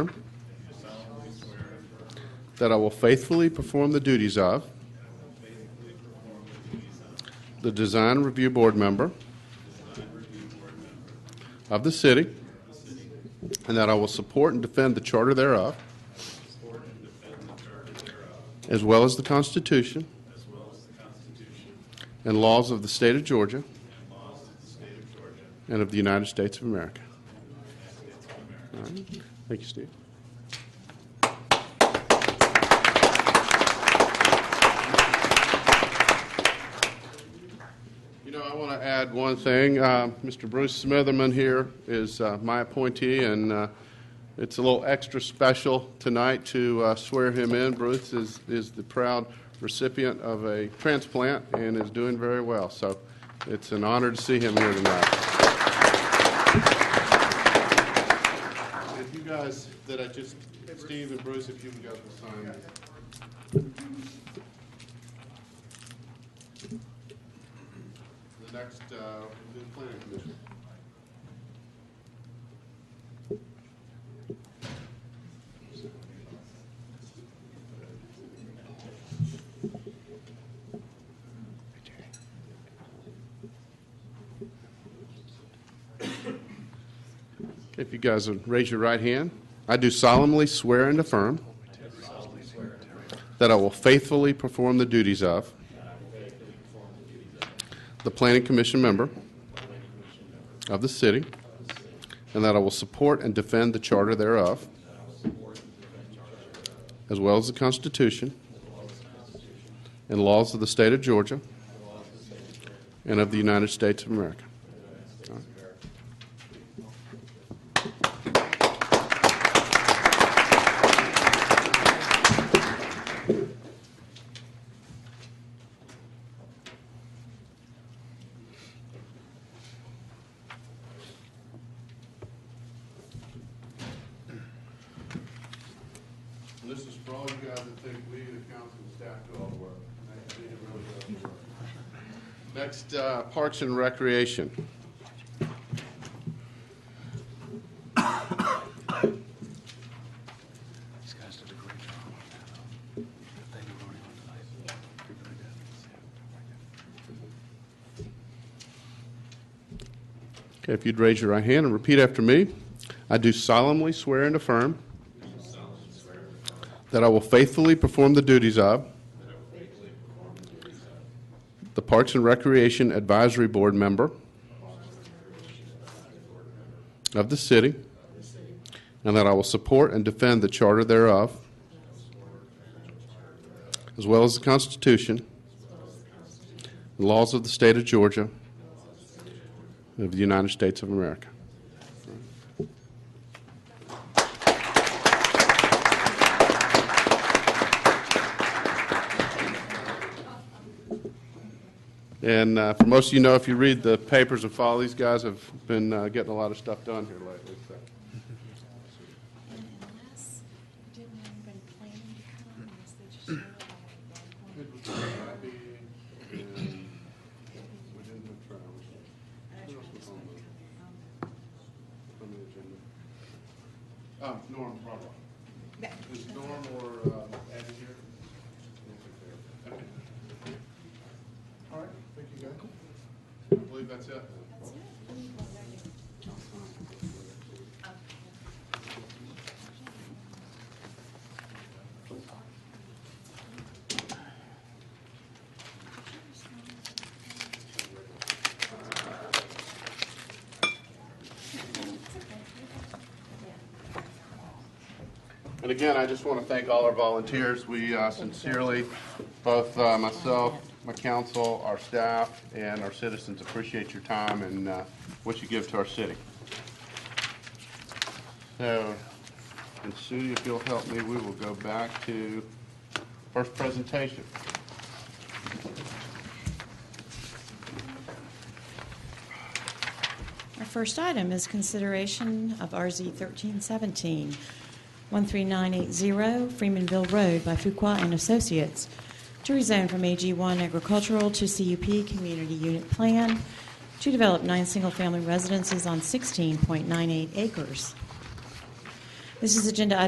affirm that I will faithfully perform the duties of the Design Review Board member of the city, and that I will support and defend the charter thereof, as well as the Constitution and laws of the state of Georgia and of the United States of America. All right. Thank you, Steve. You know, I want to add one thing. Uh, Mr. Bruce Smitherman here is uh, my appointee, and uh, it's a little extra special tonight to uh, swear him in. Bruce is, is the proud recipient of a transplant and is doing very well, so it's an honor to see him here tonight. If you guys, that I just, Steve and Bruce, if you can guys will sign it. The next, uh, the planning commission. If you guys would raise your right hand. I do solemnly swear and affirm that I will faithfully perform the duties of the Planning Commission member of the city, and that I will support and defend the charter thereof, as well as the Constitution and laws of the state of Georgia and of the United States of America. And this is for all you guys that think we, the council and staff, do all the work. Next meeting really does the work. Next, uh, Parks and Recreation. These guys did a great job on that. um, that They were voting on tonight. They really did. Okay, if you'd raise your right hand and repeat after me. I do solemnly swear and affirm that I will faithfully perform the duties of the Parks and Recreation Advisory Board member of the city, and that I will support and defend the charter thereof, as well as the Constitution and laws of the state of Georgia of the United States of America. And uh, for most of you know, if you read the papers and follow, these guys have been uh, getting a lot of stuff done here lately. So. Unless, didn't anybody plan to come, unless they just showed up on one point. Oh, Norm, probably. Is Norm or uh, Abby here? I don't think they're- okay. All right, thank you, guys. I believe that's it. That's it. We need one right here. Okay. And again, I just want to thank all our volunteers. We uh, sincerely, both uh, myself, my council, our staff, and our citizens appreciate your time and uh, what you give to our city. So, and Sue, if you'll help me, we will go back to first presentation. Our first item is consideration of RZ 1317, 13980 Freemanville Road by Fuqua and Associates, to rezone from AG1 agricultural to CUP Community Unit Plan, to develop nine single-family residences on 16.98 acres. This is agenda item